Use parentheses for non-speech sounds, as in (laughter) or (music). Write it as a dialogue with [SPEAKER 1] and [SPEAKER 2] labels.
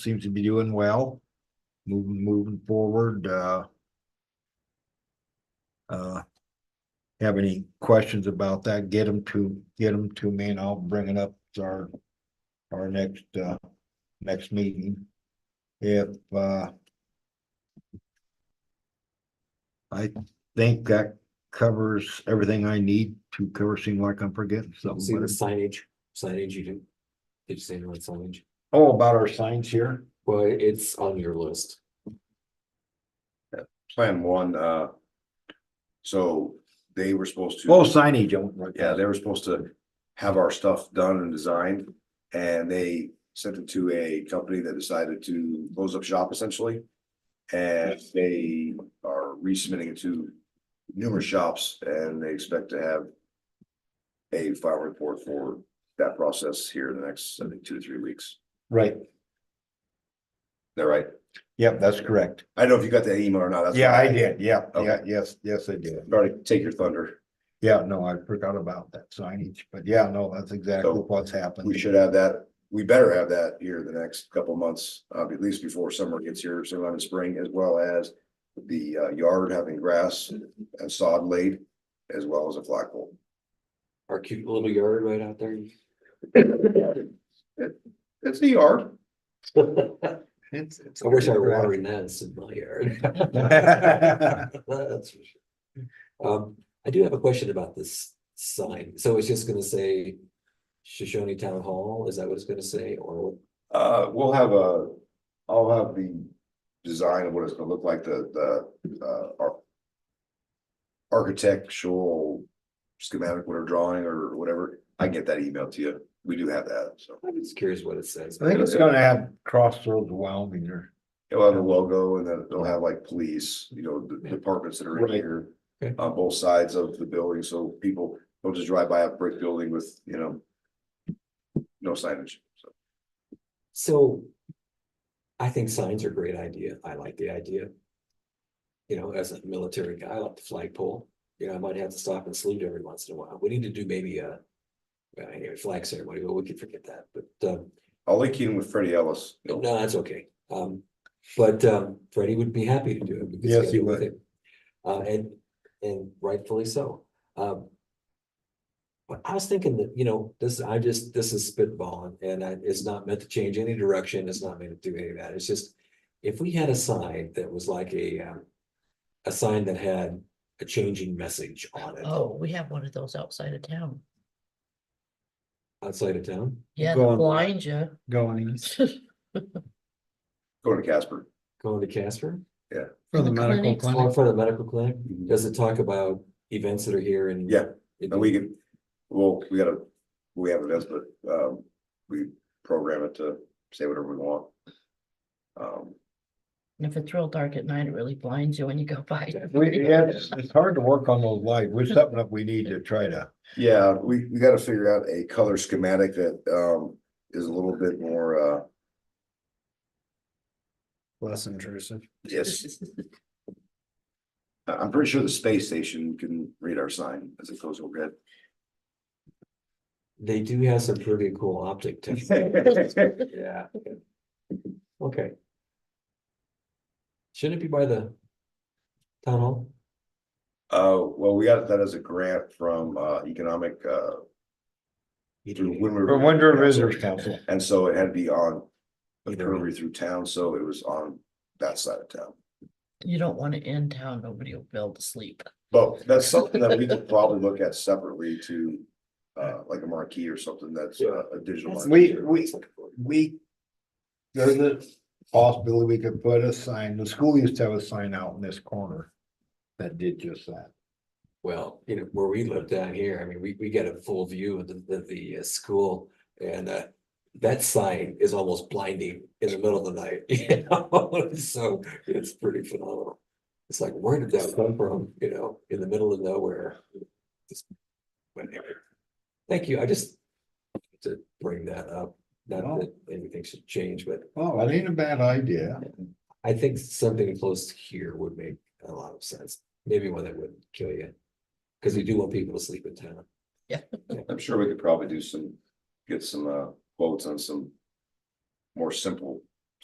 [SPEAKER 1] seems to be doing well, moving, moving forward, uh. Uh, have any questions about that, get them to, get them to me and I'll bring it up to our, our next, uh, next meeting. If, uh, I think that covers everything I need to cover, seem like I'm forgetting
[SPEAKER 2] See
[SPEAKER 1] something.
[SPEAKER 2] the
[SPEAKER 1] but-
[SPEAKER 2] signage, signage you didn't, did you say the right signage?
[SPEAKER 1] Oh, about our signs here?
[SPEAKER 2] Well, it's on your list.
[SPEAKER 3] Plan one, uh. So they were supposed to.
[SPEAKER 1] Oh, signage, I went right.
[SPEAKER 3] Yeah, they were supposed to have our stuff done and designed, and they sent it to a company that decided to close up shop essentially. And they are resubmitting it to numerous shops, and they expect to have a final report for that process here in the next, I think, two to three weeks. Is
[SPEAKER 1] Right,
[SPEAKER 3] that right?
[SPEAKER 1] yep, that's correct.
[SPEAKER 3] I don't know if you got that email or not. that's
[SPEAKER 1] Yeah,
[SPEAKER 3] why-
[SPEAKER 1] I did, yeah, yeah,
[SPEAKER 3] Okay.
[SPEAKER 1] yes, yes, I did.
[SPEAKER 3] Sorry, to take your thunder.
[SPEAKER 1] Yeah, no, I forgot about that signage, but yeah, no, that's exactly
[SPEAKER 3] So,
[SPEAKER 1] what's happened.
[SPEAKER 3] We should have that, we better have that here the next couple of months, uh, at least before summer gets here, sometime in spring, as well as the uh, yard having grass and sod laid, as well as a flagpole.
[SPEAKER 2] Our cute little yard right
[SPEAKER 1] (laughs)
[SPEAKER 2] out there.
[SPEAKER 3] It's a yard.
[SPEAKER 2] I
[SPEAKER 1] It's, it's.
[SPEAKER 2] wish I were watering that in
[SPEAKER 1] (laughs)
[SPEAKER 2] my yard. That's for sure. Um, I do have a question about this sign. So it's just gonna say Shoshone Town Hall, is that what it's gonna say or?
[SPEAKER 3] Uh, we'll have a, I'll have the design of what it's gonna look like, the, the, uh, ar- architectural schematic, whatever drawing or whatever. I can get that email to you. We do have that, so.
[SPEAKER 2] I'm just curious what it says.
[SPEAKER 1] I think it's gonna have crossroads Wyoming or,
[SPEAKER 3] It'll have a logo and then it'll have like police, you know, the
[SPEAKER 2] Yeah.
[SPEAKER 3] departments that are in
[SPEAKER 1] Right.
[SPEAKER 3] here.
[SPEAKER 2] Okay.
[SPEAKER 3] On both sides of the building, so people don't just drive by a brick building with, you know. No signage, so
[SPEAKER 2] So I think signs are a great idea. I like the idea. You know, as a military guy, I like the flagpole. You know, I might have to stop and salute every once in a while. We need to do maybe a well, anyway, flag ceremony, but we could forget that. But um,
[SPEAKER 3] I'll link you in with Freddie Ellis. you know.
[SPEAKER 2] no, that's okay. Um, but um, Freddie would be happy to do it. We could
[SPEAKER 1] Yes, he
[SPEAKER 2] schedule with
[SPEAKER 1] would.
[SPEAKER 2] him. Uh, and and rightfully so. Um, but I was thinking that, you know, this, I just, this is spitballing and I, it's not meant to change any direction. It's not meant to do any of that. It's just. If we had a sign that was like a, um, a sign that had a changing message on it
[SPEAKER 4] Oh, we have one of those outside of town.
[SPEAKER 2] outside of town.
[SPEAKER 4] Yeah,
[SPEAKER 1] Go
[SPEAKER 4] they'll
[SPEAKER 1] on.
[SPEAKER 4] blind you. (laughs)
[SPEAKER 1] going east
[SPEAKER 3] Go to Casper.
[SPEAKER 2] Going to Casper,
[SPEAKER 5] For the
[SPEAKER 4] The
[SPEAKER 5] medical
[SPEAKER 4] clinics.
[SPEAKER 2] or in
[SPEAKER 5] clinic,
[SPEAKER 2] front of the medical clinic, does it talk about events that are here and?
[SPEAKER 3] Yeah,
[SPEAKER 2] It-
[SPEAKER 3] And we can, well, we gotta, we have events, but um, we program it to say whatever we want. Um,
[SPEAKER 4] And If it's real dark at night, it really blinds you when you go by.
[SPEAKER 1] We, yeah, it's, it's hard to work on those lights, which is something that we need to try to,
[SPEAKER 3] Yeah, we, we gotta figure out a color schematic that, um, is a little bit more, uh,
[SPEAKER 5] less intrusive.
[SPEAKER 3] yes. I- (laughs) I'm pretty sure the space station can read our sign as it goes overhead.
[SPEAKER 2] They do have some pretty cool
[SPEAKER 3] (laughs)
[SPEAKER 2] optic tech.
[SPEAKER 3] It's
[SPEAKER 2] Yeah. Okay. Shouldn't it be by the town hall?
[SPEAKER 3] Uh, well, we got that as a grant from, uh, economic, uh, through
[SPEAKER 2] Either-
[SPEAKER 3] Windward.
[SPEAKER 1] for Windsor Visitors Council.
[SPEAKER 3] And so it had to be on a
[SPEAKER 2] Either
[SPEAKER 3] curvy through town, so it was on that side of town.
[SPEAKER 4] (laughs) You don't want it in town, nobody will be able to sleep.
[SPEAKER 3] But that's something that we could probably look at separately to, uh, like a marquee or something that's uh, a digital.
[SPEAKER 2] That's-
[SPEAKER 3] marquee.
[SPEAKER 1] We- we- We, there's a possibility we could put a sign, the school used to have a sign out in this corner that did just that.
[SPEAKER 2] Well, you know, where we live down here, I mean, we, we get a full view of the, the, the uh, school and, uh, that sign is almost blinding in the middle of the night, (laughs) you know, (laughs) so it's pretty phenomenal. It's like, where did that come from, you know, in the middle of nowhere? Just whatever. Thank you, I just to bring that up,
[SPEAKER 1] No.
[SPEAKER 2] not that anything should change, but
[SPEAKER 1] Oh, that ain't a bad idea.
[SPEAKER 2] I think something close here would make a lot of sense, maybe one that wouldn't kill you. Cause you do want people to sleep in town.
[SPEAKER 3] I'm sure we could probably do some, get some uh quotes on some more simple